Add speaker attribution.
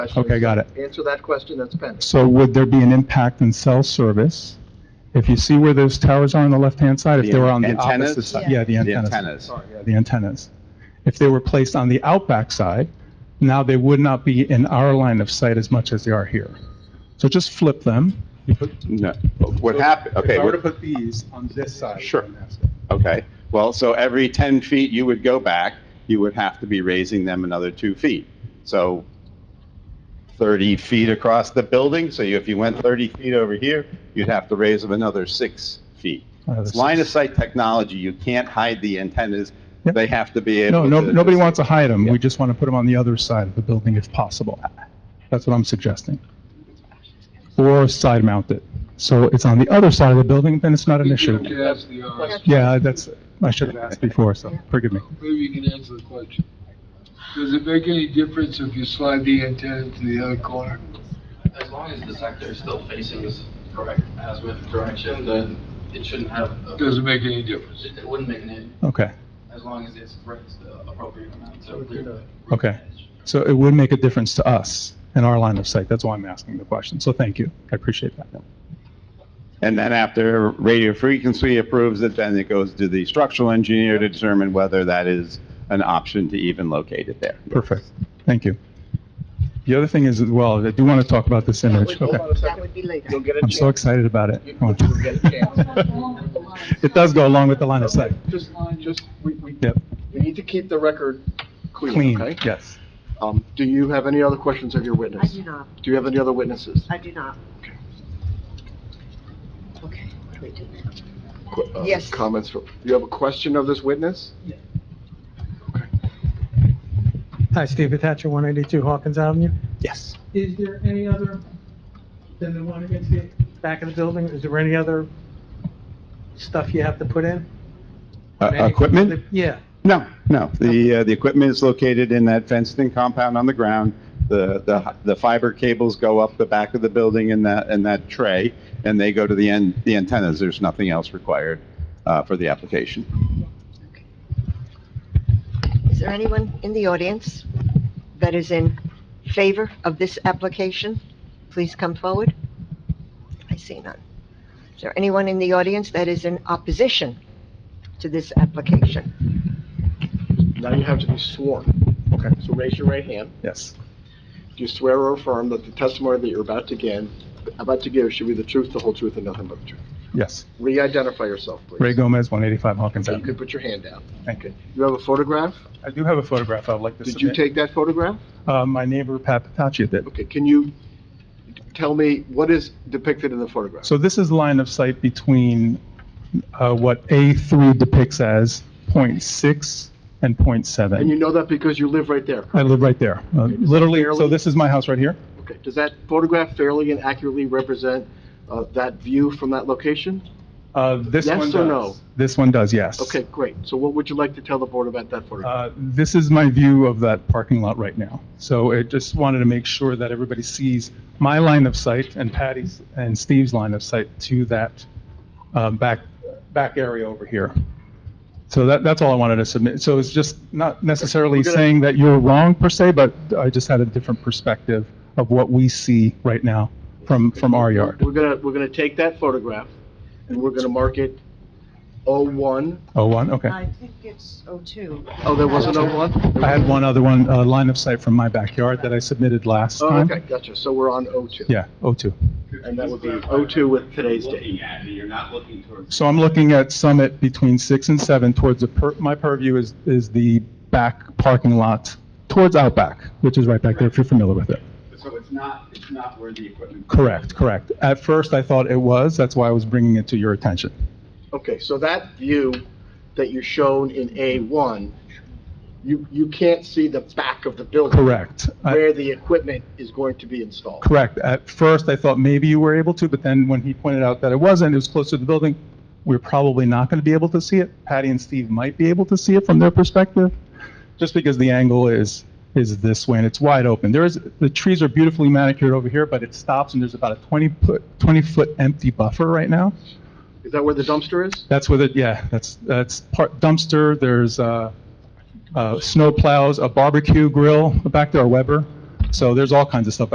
Speaker 1: question.
Speaker 2: Okay, got it.
Speaker 1: Answer that question, that's pending.
Speaker 2: So would there be an impact in cell service? If you see where those towers are on the left-hand side, if they were on the
Speaker 3: The antennas?
Speaker 2: opposite side? Yeah, the
Speaker 3: The
Speaker 2: antennas.
Speaker 3: antennas.
Speaker 1: Sorry, yeah.
Speaker 2: The antennas. If they were placed on the outback side, now they would not be in our line of sight as much as they are here. So just flip them.
Speaker 3: No, what happened, okay,
Speaker 2: If I were to
Speaker 3: what-
Speaker 2: put these on this side.
Speaker 3: Sure. okay. Well, so every 10 feet you would go back, you would have to be raising them another two feet. So 30 feet across the building, so you- if you went 30 feet over here, you'd have to raise them another six feet.
Speaker 2: Uh,
Speaker 3: It's line of sight technology, you can't hide the antennas,
Speaker 2: Yep.
Speaker 3: they have to be able
Speaker 2: No,
Speaker 3: to...
Speaker 2: no, nobody wants to hide them.
Speaker 3: Yeah.
Speaker 2: We just want to put them on the other side of the building if possible. That's what I'm suggesting. Or side mount it. So it's on the other side of the building, then it's not an issue.
Speaker 4: You asked the
Speaker 5: uh,
Speaker 4: RS,
Speaker 2: Yeah, that's, I should have asked before, so forgive me.
Speaker 4: maybe you can answer the question. Does it make any difference if you slide the antenna to the other corner?
Speaker 5: As long as the sector is still facing this correct azimuth direction, then it shouldn't have, a-
Speaker 4: Doesn't make any difference.
Speaker 5: it it wouldn't make any,
Speaker 2: Okay,
Speaker 5: as long as it's raised the appropriate amount to
Speaker 1: Okay.
Speaker 5: clear the.
Speaker 2: okay. So it would make a difference to us in our line of sight. That's why I'm asking the question. So thank you. I appreciate that.
Speaker 3: And then after radio frequency approves it, then it goes to the structural engineer to determine whether that is an option to even locate it there.
Speaker 2: Perfect. Thank you. The other thing is as well, I do want to talk about this image.
Speaker 1: Hold
Speaker 2: Okay.
Speaker 1: on a
Speaker 6: That
Speaker 1: second.
Speaker 6: would be later.
Speaker 1: You'll get a
Speaker 2: I'm so
Speaker 1: chance.
Speaker 2: excited about it.
Speaker 1: You-
Speaker 2: Come on.
Speaker 1: you'll get a chance.
Speaker 2: It does go along with the line of sight.
Speaker 1: Just, just, we, we,
Speaker 2: Yep.
Speaker 1: we need to keep the record clean,
Speaker 2: Clean,
Speaker 1: okay?
Speaker 2: yes.
Speaker 1: Um, do you have any other questions of your
Speaker 6: I
Speaker 1: witness?
Speaker 6: do not,
Speaker 1: Do you have any other witnesses?
Speaker 6: I do not. Okay, what do we do now?
Speaker 1: Qu- uh,
Speaker 6: Yes.
Speaker 1: Comments from, you have a question of this witness?
Speaker 7: Hi, Steve Attacher, 182 Hawkins Avenue.
Speaker 2: Yes.
Speaker 7: Is there any other, than the one against the back of the building, is there any other stuff you have to put in?
Speaker 3: Uh,
Speaker 7: Any-
Speaker 3: Equipment?
Speaker 7: Yeah.
Speaker 3: No, no. The, uh, the equipment is located in that fenced-in compound on the ground. The, the, the fiber cables go up the back of the building in that, in that tray, and they go to the end, the antennas. There's nothing else required, uh, for the application.
Speaker 6: Is there anyone in the audience that is in favor of this application? Please come forward. I see none. Is there anyone in the audience that is in opposition to this application?
Speaker 1: Now you have to be sworn.
Speaker 2: Okay.
Speaker 1: So raise your right hand.
Speaker 2: Yes.
Speaker 1: Do you swear or affirm that the testimony that you're about to give, about to give should be the truth, the whole truth, and nothing but the truth?
Speaker 2: Yes.
Speaker 1: Re-identify yourself, please.
Speaker 2: Ray Gomez, 185 Hawkins
Speaker 1: So you
Speaker 2: Avenue.
Speaker 1: could put your hand down.
Speaker 2: Thank you.
Speaker 1: You have a photograph?
Speaker 2: I do have a photograph I'd like to
Speaker 1: Did you
Speaker 2: submit.
Speaker 1: take that photograph?
Speaker 2: Uh, My neighbor, Pat Patachia, did.
Speaker 1: Okay, can you tell me what is depicted in the photograph?
Speaker 2: So this is line of sight between uh, what A3 depicts as .6
Speaker 1: And
Speaker 2: and
Speaker 1: you
Speaker 2: .7.
Speaker 1: know that because you live right there.
Speaker 2: I live right there, Uh,
Speaker 1: Okay, just
Speaker 2: literally, so
Speaker 1: barely-
Speaker 2: this is my house right here.
Speaker 1: Okay, does that photograph fairly and accurately represent uh, that view from that location?
Speaker 2: Uh, This
Speaker 1: Yes
Speaker 2: one
Speaker 1: or
Speaker 2: does.
Speaker 1: no?
Speaker 2: This one does, yes.
Speaker 1: Okay, great. So what would you like to tell the board about that photograph?
Speaker 2: Uh, This is my view of that parking lot right now. So I just wanted to make sure that everybody sees my line of sight and Patty's and Steve's line of sight to that um, back, back area over here. So that, that's all I wanted to submit. So it's just not necessarily
Speaker 1: We're gonna-
Speaker 2: saying that you're wrong per se, but I just had a different perspective of what we see right now from, Uh, from our yard.
Speaker 1: We're gonna, we're gonna take that photograph, and we're gonna mark it O1.
Speaker 2: Oh, one, okay.
Speaker 6: think it's O2.
Speaker 1: Oh, there was an O1?
Speaker 2: I had one other one, uh, line of sight from my backyard that I submitted last
Speaker 1: Oh,
Speaker 2: time.
Speaker 1: okay, gotcha. So we're on O2.
Speaker 2: Yeah, oh, two.
Speaker 1: And that would be O2 with today's date.
Speaker 3: at, you're not looking towards
Speaker 2: So I'm looking at Summit between 6 and 7 towards the, per- my purview is, is the back parking lot towards Outback, which is right back there, if you're familiar with it.
Speaker 3: So it's not, it's not where the equipment.
Speaker 2: Correct, correct. At first, I thought it was, that's why I was bringing it to your attention.
Speaker 1: Okay, so that view that you're shown in A1, you, you can't see the back of the building.
Speaker 2: Correct. I-
Speaker 1: Where the equipment is going to be installed.
Speaker 2: Correct. At first, I thought maybe you were able to, but then when he pointed out that it wasn't, it was close to the building, we're probably not going to be able to see it. Patty and Steve might be able to see it from their perspective, just because the angle is, is this way and it's wide open. There is, the trees are beautifully manicured over here, but it stops and there's about a 20-foot, 20-foot empty buffer right now.
Speaker 1: Is that where the dumpster is?
Speaker 2: That's where the, yeah, that's, that's part dumpster, there's, uh, uh, snow plows, a barbecue grill back there, a Weber. So there's all kinds of stuff